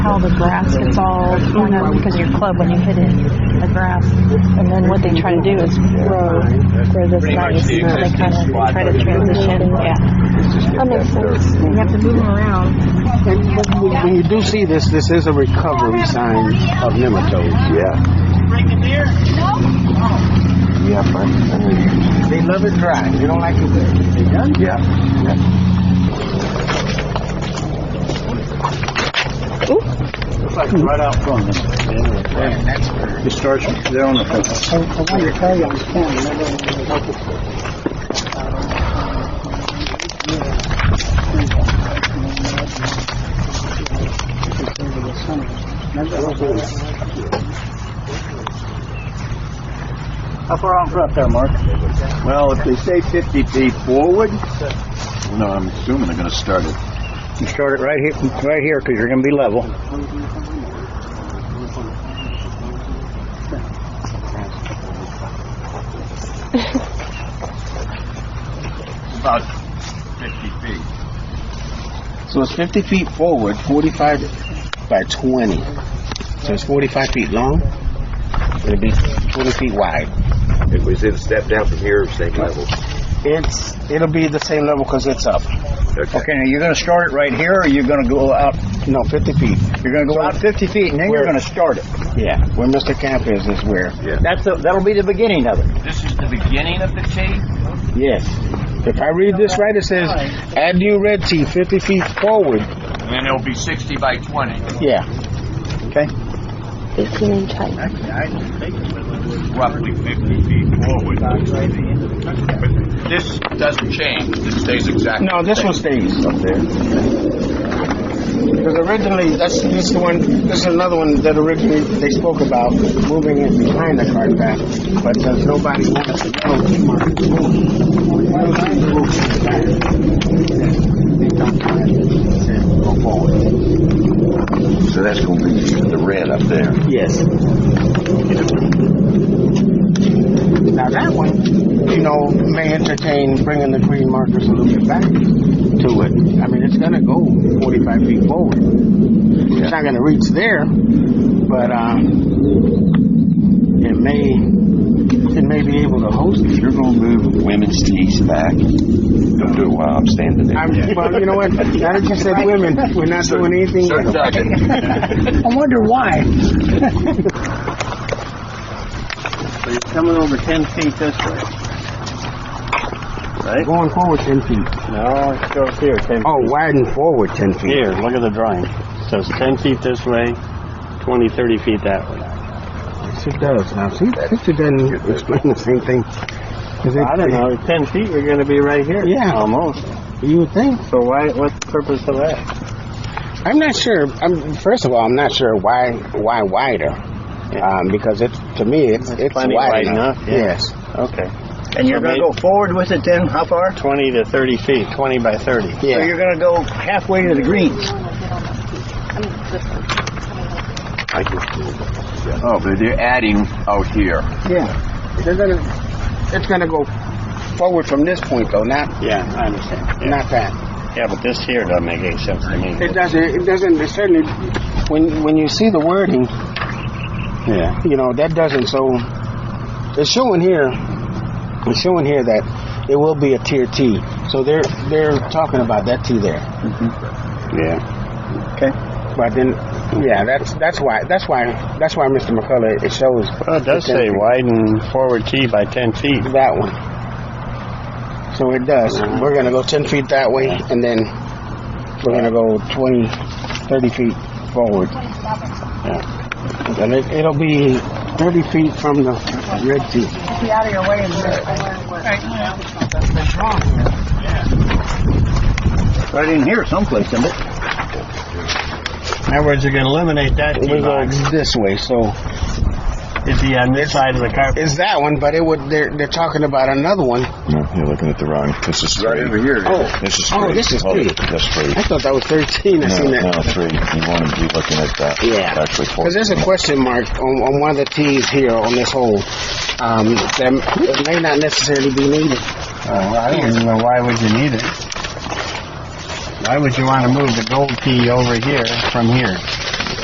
all the grass gets all torn up because your club, when you hit it, the grass. And then what they try to do is grow, grow this Pretty much nice, the so they existing kind of squad try to version. transition, yeah. That makes sense. You have to move them around. And but when when you do see this, this is a recovery sign of nematodes. Yeah, yeah, fine. I mean, uh, They love it dry. They don't like it wet. They done? yeah, yeah. Looks like right out front. Yeah, that's where. It starts there on the front. I wanted to tell you, I'm standing. How far out front there, Mark? Well, if they say 50 feet forward, no, I'm assuming they're going to start it. You start it right here, right here, because you're going to be level. About 50 feet. So it's 50 feet forward, 45 by 20. So it's 45 feet long. It'll be 20 feet wide. It was in step down from here, same level. It's it'll be the same level because it's up. Okay, now you're going to start it right here, or you're going to go out, No, 50 feet. you're going to go out 50 feet, and then you're Where- going to start it. Yeah, where Mr. Camp is is where. Yeah. That's, the- that'll be the beginning of it. This is the beginning of the tape. Yes. If I read this right, it says add new red tee 50 feet forward. And then it'll be 60 by 20. Yeah. Okay? Fifteen inch height. roughly 50 feet forward. But this doesn't change, this stays exactly. No, this one stays up there. Because originally, that's this is the one. This is another one that originally they spoke about moving it behind the cart path, but since nobody wanted to go, they marked it. Why would they move it back? They don't care. They said, Go forward. So that's going to be the red up there. Yes. Now that one, you know, may entertain bringing the green markers a little bit back to it. I mean, it's gonna go 45 feet forward. It's not gonna reach there, but um, it may it may be able to host it. If you're going to move women's tees back, don't do it while I'm standing there. I'm, well, you know what? Now that you said women, we're not doing anything. So it doesn't. I wonder why. So you're coming over 10 feet this way. They're going forward 10 feet. No, it goes here, 10 Oh, widen forward 10 feet. Here, look at the drawing. So it's 10 feet this way, 20, 30 feet that way. Yes, it does. Now, see, picture doesn't explain the same thing. 'Cause it- I don't know, 10 feet, we're going to be right here. Yeah. Almost. You would think. So why, what's the purpose of that? I'm not sure. I'm, first of all, I'm not sure why why wider. Um, because it to me it's it's plenty wide wide enough. enough, yeah. Yes. Okay. And you're So going they- to go forward with it then? How far? 20 to 30 feet, 20 by 30. Yeah. So you're going to go halfway to the greens. Oh, but they're adding out here. yeah. They're gonna it's gonna go forward from this point though, not Yeah, I understand. not that. Yeah, but this here doesn't make any sense to me. It doesn't it doesn't it certainly when when you see the wording, Yeah. you know, that doesn't so it's showing here it's showing here that it will be a tier T. So they're they're talking about that T there. Mm-hmm. Yeah. But then, yeah, that's that's why that's why that's why Mr. McCullough it shows. Well, it does the 10 say feet, widen forward tee by 10 feet. that one. So it does. We're gonna go ten feet that way, and then we're gonna go 20, 30 feet forward. Yeah. And it, it'll be thirty feet from the red tee. Right in here someplace, isn't it? In other words, you're going to eliminate that We tee go box. this way, so It'd be on this side of the carpet. it's that one. But it would. They're they're talking about another one. No, you're looking at the wrong. This is Right three. over here. Oh, This is Oh, three. this is Hold three. it. That's three. I thought that was thirteen. I No, seen that. no, three. You want to be looking at that. Yeah. Actually, four. Because there's a question mark on, on one of the T's here on this hole. Um, that it may not necessarily be needed. Oh, I don't even know why would you need it. Why would you want to move the gold tee over here from here?